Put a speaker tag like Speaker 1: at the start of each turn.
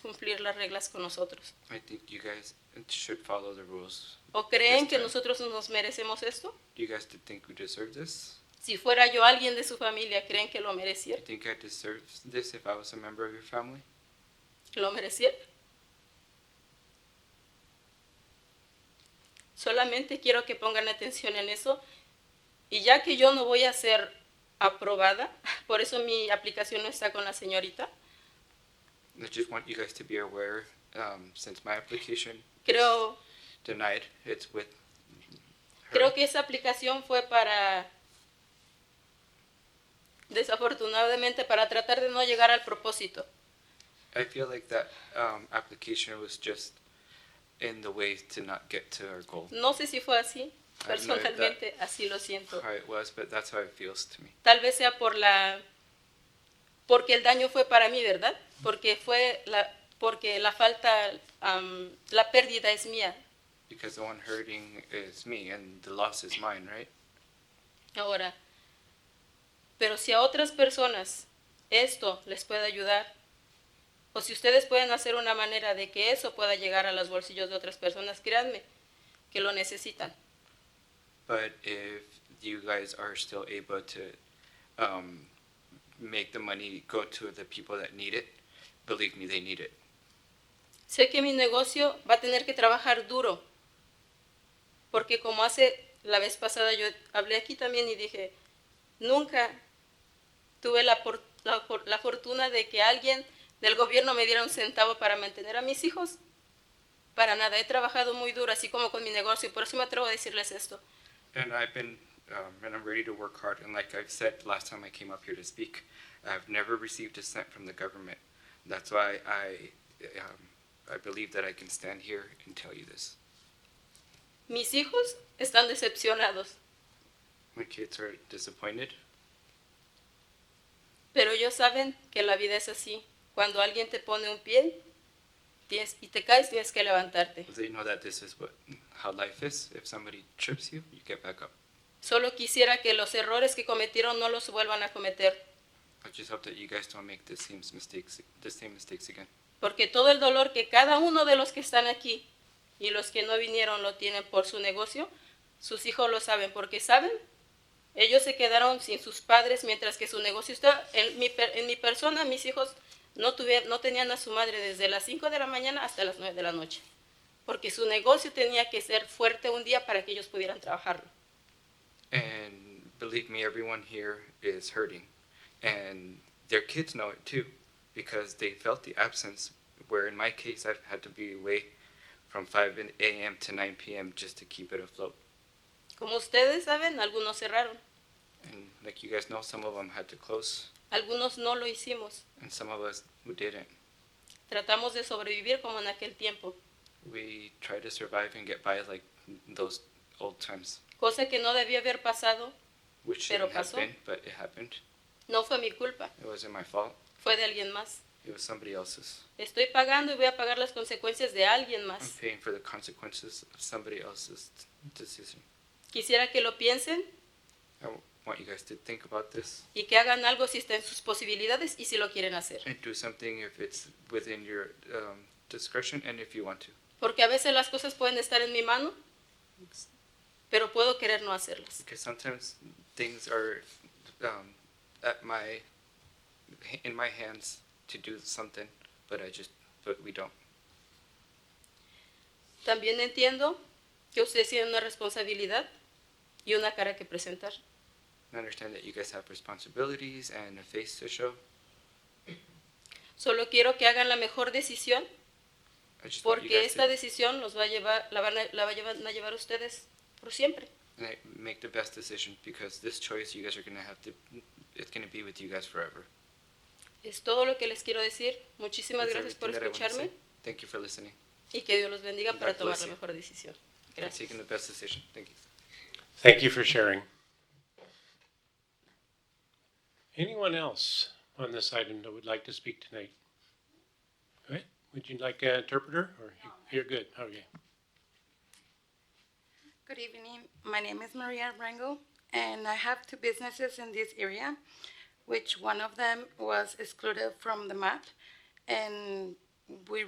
Speaker 1: cumplir las reglas con nosotros.
Speaker 2: I think you guys should follow the rules.
Speaker 1: ¿O creen
Speaker 2: Yes,
Speaker 1: que
Speaker 2: ma'am.
Speaker 1: nosotros nos merecemos esto?
Speaker 2: Do you guys think we deserve this?
Speaker 1: Si fuera yo alguien de su familia, ¿creen que lo
Speaker 2: Do you
Speaker 1: mereciera?
Speaker 2: think I deserve this if I was a member of your family?
Speaker 1: ¿Lo mereciera? Solamente quiero que pongan atención en eso. Y ya que yo no voy a ser aprobada, por eso mi aplicación no está con la señorita,
Speaker 2: I just want you guys to be aware, um, since my application
Speaker 1: creo,
Speaker 2: is denied, it's with her.
Speaker 1: creo que esa aplicación fue para, desafortunadamente, para tratar de no llegar al propósito.
Speaker 2: I feel like that um, application was just in the way to not get to our goal.
Speaker 1: No sé si fue así,
Speaker 2: that-
Speaker 1: personalmente así lo siento.
Speaker 2: How it was, but that's how it feels to me.
Speaker 1: Tal vez sea por la porque el daño fue para mí, ¿verdad? Porque fue la porque la falta am, la pérdida es mía.
Speaker 2: Because the one hurting is me and the loss is mine, right?
Speaker 1: Ahora, pero si a otras personas esto les puede ayudar o si ustedes pueden hacer una manera de que eso pueda llegar a los bolsillos de otras personas, créanme que lo necesitan.
Speaker 2: But if you guys are still able to um, make the money go to the people that need it, believe me, they need it.
Speaker 1: Sé que mi negocio va a tener que trabajar duro, porque como hace la vez pasada yo hablé aquí también y dije, nunca tuve la, por- la for- la fortuna de que alguien del gobierno me diera un centavo para mantener a mis hijos. Para nada, he trabajado muy duro, así como con mi negocio, y por eso me atrevo a decirles esto.
Speaker 2: And I've been, um, and I'm ready to work hard. And like I've said last time I came up here to speak, I've never received a cent from the government. That's why I, um, I believe that I can stand here and tell you this.
Speaker 1: Mis hijos están decepcionados,
Speaker 2: My kids are disappointed,
Speaker 1: pero ellos saben que la vida es así. Cuando alguien te pone un pie tienes- y te caes, tienes que levantarte.
Speaker 2: but they know that this is what how life is. If somebody trips you, you get back up.
Speaker 1: Solo quisiera que los errores que cometieron no los vuelvan a cometer,
Speaker 2: I just hope that you guys don't make the same mistakes, the same mistakes again.
Speaker 1: porque todo el dolor que cada uno de los que están aquí y los que no vinieron lo tienen por su negocio, sus hijos lo saben, porque saben, ellos se quedaron sin sus padres mientras que su negocio está, en mi, per- en mi persona mis hijos no, tuve- no tenían a su madre desde las 5 de la mañana hasta las 9 de la noche, porque su negocio tenía que ser fuerte un día para que ellos pudieran trabajarlo.
Speaker 2: And believe me, everyone here is hurting. And their kids know it too, because they felt the absence. Where in my case, I've had to be away from 5 in- a.m. to 9 p.m. just to keep it afloat.
Speaker 1: Como ustedes saben, algunos cerraron,
Speaker 2: And like you guys know, some of them had to close,
Speaker 1: algunos no lo hicimos.
Speaker 2: and some of us who didn't.
Speaker 1: Tratamos de sobrevivir como en aquel tiempo,
Speaker 2: We tried to survive and get by like those old times,
Speaker 1: cosa que no debía haber pasado,
Speaker 2: which
Speaker 1: Pero
Speaker 2: shouldn't have
Speaker 1: pasó.
Speaker 2: been, but it happened.
Speaker 1: no fue mi culpa,
Speaker 2: It wasn't my fault.
Speaker 1: fue de alguien más.
Speaker 2: It was somebody else's.
Speaker 1: Estoy pagando y voy a pagar las consecuencias de alguien
Speaker 2: I'm
Speaker 1: más.
Speaker 2: paying for the consequences of somebody else's decision.
Speaker 1: Quisiera que lo piensen
Speaker 2: I want you guys to think about this
Speaker 1: y que hagan algo si está en sus posibilidades y si lo quieren hacer.
Speaker 2: and do something if it's within your um, discretion and if you want to.
Speaker 1: Porque a veces las cosas pueden estar en mi mano, pero puedo querer no hacerlas.
Speaker 2: Because sometimes things are um, at my in my hands to do something, but I just but we don't.
Speaker 1: También entiendo que ustedes tienen una responsabilidad y una cara que presentar.
Speaker 2: I understand that you guys have responsibilities and a face to show.
Speaker 1: Solo quiero que hagan la mejor decisión
Speaker 2: I just want you
Speaker 1: Porque
Speaker 2: guys
Speaker 1: esta
Speaker 2: to
Speaker 1: decisión los va a llevar, la van a, la va a llevar- van a llevar ustedes por siempre.
Speaker 2: like, make the best decision because this choice you guys are gonna have to. It's gonna be with you guys forever.
Speaker 1: Es todo lo que les quiero decir. Muchísimas
Speaker 2: That's
Speaker 1: gracias por
Speaker 2: everything that I wanna say.
Speaker 1: escucharme
Speaker 2: Thank you for listening.
Speaker 1: y que Dios los bendiga
Speaker 2: God
Speaker 1: para tomar
Speaker 2: bless
Speaker 1: la
Speaker 2: you.
Speaker 1: mejor decisión.
Speaker 2: for
Speaker 1: Gracias.
Speaker 2: taking the best decision. Thank you.
Speaker 3: Thank you for sharing. Anyone else on this item that would like to speak tonight? Okay, would you like an interpreter or you- you're good? Okay.
Speaker 4: Good evening. My name is Maria Rangel, and I have two businesses in this area, which one of them was excluded from the map, and we